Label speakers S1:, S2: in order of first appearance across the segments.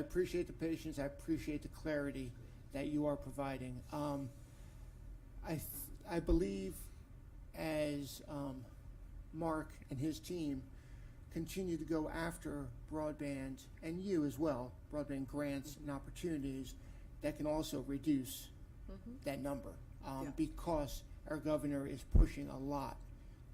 S1: I appreciate the patience, I appreciate the clarity that you are providing. Um, I, th- I believe as, um, Mark and his team continue to go after broadband and you as well, broadband grants and opportunities, that can also reduce that number.
S2: Yeah.
S1: Um, because our governor is pushing a lot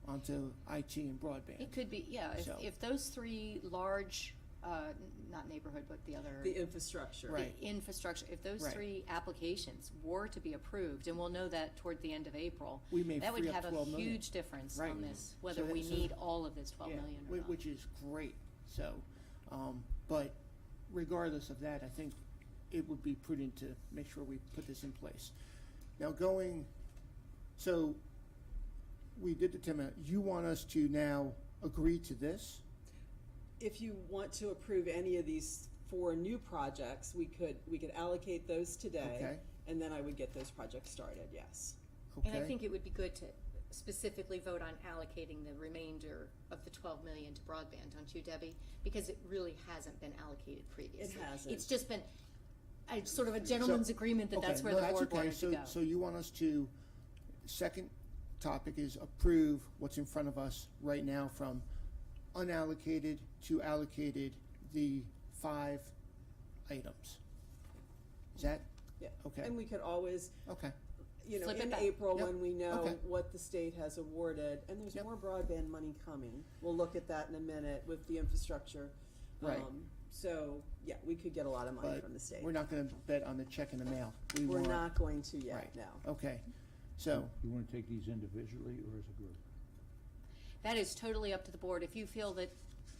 S1: onto IT and broadband.
S3: It could be, yeah, if,
S1: So-
S3: if those three large, uh, n- not neighborhood, but the other.
S2: The infrastructure.
S3: the
S1: Right.
S3: Infrastructure, if those
S1: Right.
S3: three applications were to be approved, and we'll know that toward the end of April,
S1: We may
S3: that would
S1: free up
S3: have a
S1: 12 million.
S3: huge difference
S1: Right.
S3: on this, whether
S1: that-
S3: we
S1: so-
S3: need all of this twelve
S1: Yeah,
S3: million
S1: whi-
S3: or not.
S1: Which is great, so, um, but regardless of that, I think it would be prudent to make sure we put this in place. Now going, so we did the ten minute, you want us to now agree to this?
S2: If you want to approve any of these four new projects, we could, we could allocate those today.
S1: Okay.
S2: And then I would get those projects started, yes.
S1: Okay.
S4: And I think it would be good to specifically vote on allocating the remainder of the twelve million to broadband, don't you, Debbie? Because it really hasn't been allocated previously.
S2: hasn't.
S4: It's just been, a sort of a gentleman's agreement that
S1: Okay,
S4: that's where
S1: no,
S4: the board
S1: okay.
S4: wanted to
S1: So-
S4: go.
S1: So you want us to, second topic is approve what's in front of us right now from unallocated to allocated, the five items. Is that,
S2: Yeah.
S1: Okay.
S2: And we could always,
S1: okay,
S2: you know,
S3: Flip it
S2: in
S3: back.
S2: April,
S1: Yep.
S2: when we know
S1: Okay.
S2: what the state has awarded, and there's
S1: Yep.
S2: more broadband money coming. We'll look at that in a minute with the infrastructure.
S1: Right.
S2: Um, So, yeah, we could get a lot of money
S1: but
S2: from the state.
S1: we're not gonna bet on the check in the mail. We
S2: We're
S1: want-
S2: not going to yet,
S1: Right.
S2: no.
S1: Okay, so,
S5: You want to take these individually or as a group?
S3: That is totally up to the board, if you feel that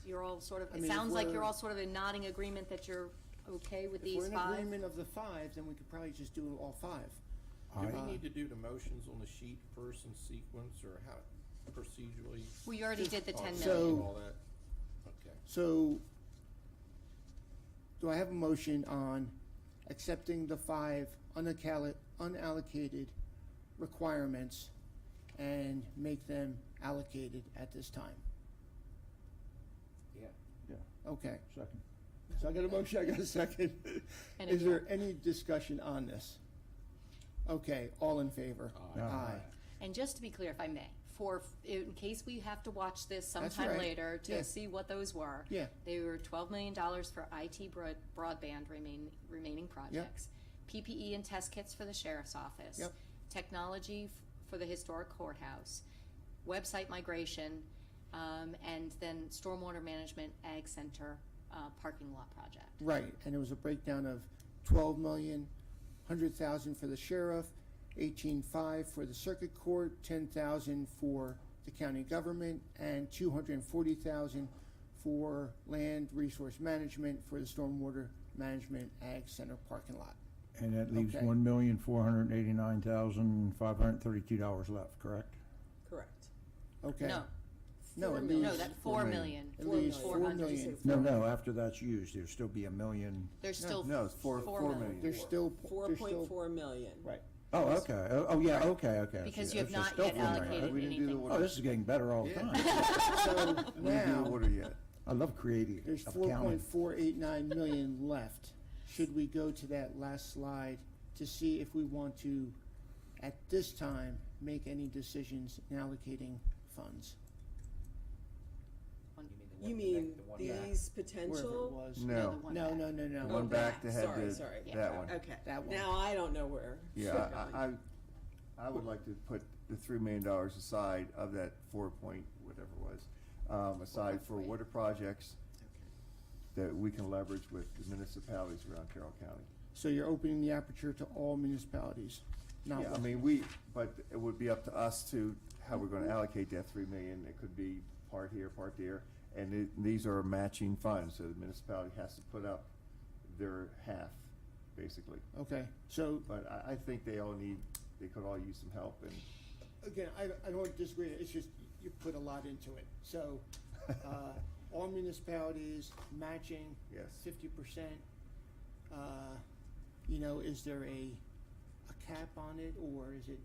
S3: you're all sort of,
S1: I mean,
S3: it
S1: if
S3: sounds like
S1: we're-
S3: you're all sort of in nodding agreement that you're okay with
S1: if we're
S3: these
S1: in
S3: five.
S1: agreement of the five, then we could probably just do all five.
S5: I-
S6: Do we need to do the motions on the sheet first in sequence, or how procedurally? Oh,
S3: We already did the ten
S1: So-
S3: million,
S6: All that, okay.
S1: So, do I have a motion on accepting the five unallocated, unallocated requirements and make them allocated at this time?
S6: Yeah.
S5: Yeah,
S1: Okay,
S5: second.
S1: so I got a motion, I got a second.
S3: And
S1: Is
S3: if-
S1: there any discussion on this? Okay, all in favor?
S6: Aye.
S1: Aye.
S3: and just to be clear, if I may, for, in case we have to watch this
S1: That's
S3: sometime
S1: right.
S3: later
S1: Yeah.
S3: to see what those were.
S1: Yeah,
S3: They were twelve million dollars for IT broad- broadband remain, remaining projects. PPE and test kits for the sheriff's office.
S1: Yep.
S3: Technology f- for the historic courthouse, website migration, um, and then stormwater management, ag center, uh, parking lot project.
S1: right, and it was a breakdown of twelve million, hundred thousand for the sheriff, eighteen-five for the circuit court, ten thousand for the county government, and two hundred and forty thousand for land resource management for the stormwater management ag center parking lot.
S5: And that leaves
S1: Okay.
S5: one million, four hundred and eighty-nine thousand, five hundred and thirty-two dollars left, correct?
S2: Correct.
S1: Okay.
S3: No.
S1: No,
S3: Four
S1: it
S3: million. No,
S1: leaves
S3: that four
S5: four
S3: million.
S5: million.
S1: It leaves
S2: Four
S1: four
S2: million.
S1: million.
S5: No, no, after that's used, there'll still be a million.
S3: There's
S1: No.
S3: still.
S7: No, it's four- four million.
S1: There's still,
S2: Four
S1: there's
S2: point
S1: still,
S2: four million.
S1: right.
S5: Oh, okay. Oh, oh, yeah, okay, okay. I see.
S3: Because you have
S5: So
S3: not
S5: still
S3: yet
S5: four million.
S3: allocated
S7: We didn't do the
S3: anything.
S7: one-
S5: Oh, this is getting better all the
S6: Yeah.
S5: time.
S1: So
S7: We didn't do
S1: now,
S7: the order yet.
S5: I love creating,
S1: There's
S5: of
S1: four
S5: counting.
S1: point four eight nine million left. Should we go to that last slide to see if we want to, at this time, make any decisions in allocating funds?
S2: You mean
S1: back.
S2: these
S1: Wherever it
S2: potential?
S1: was.
S3: the
S7: No,
S3: one
S1: No,
S3: back.
S1: no, no, no.
S7: the
S2: Oh,
S7: one back
S2: that.
S7: that had
S2: Sorry,
S7: the,
S2: sorry. Yeah.
S7: that one.
S2: Okay.
S1: That one.
S2: Now I don't know where. she's
S7: Yeah,
S2: going.
S7: I, I, I would like to put the three million dollars aside of that four point, whatever it was, um, aside for water projects that we can leverage with the municipalities around Carroll County.
S1: So you're opening the aperture to all municipalities, not
S7: Yeah, I
S1: one.
S7: mean, we, but it would be up to us to, how we're gonna allocate that three million, it could be part here, part there, and it, these are matching funds, so the municipality has to put up their half, basically.
S1: Okay, so,
S7: But I, I think they all need, they could all use some help, and
S1: again, I, I don't disagree, it's just, you put a lot into it. So, uh, all municipalities matching
S7: yes,
S1: fifty percent, uh, you know, is there a, a cap on it, or is it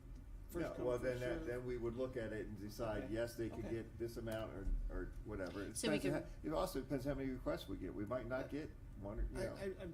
S7: No,
S1: first come,
S7: well,
S1: first
S7: then, that-
S1: served?
S7: then we would look at it and decide,
S1: Okay.
S7: yes, they could
S1: Okay.
S7: get this amount or, or whatever. It
S3: So we
S7: depends on how- It also depends how many requests we get, we might not get one, or, you
S1: I,
S7: know.
S1: I, I'm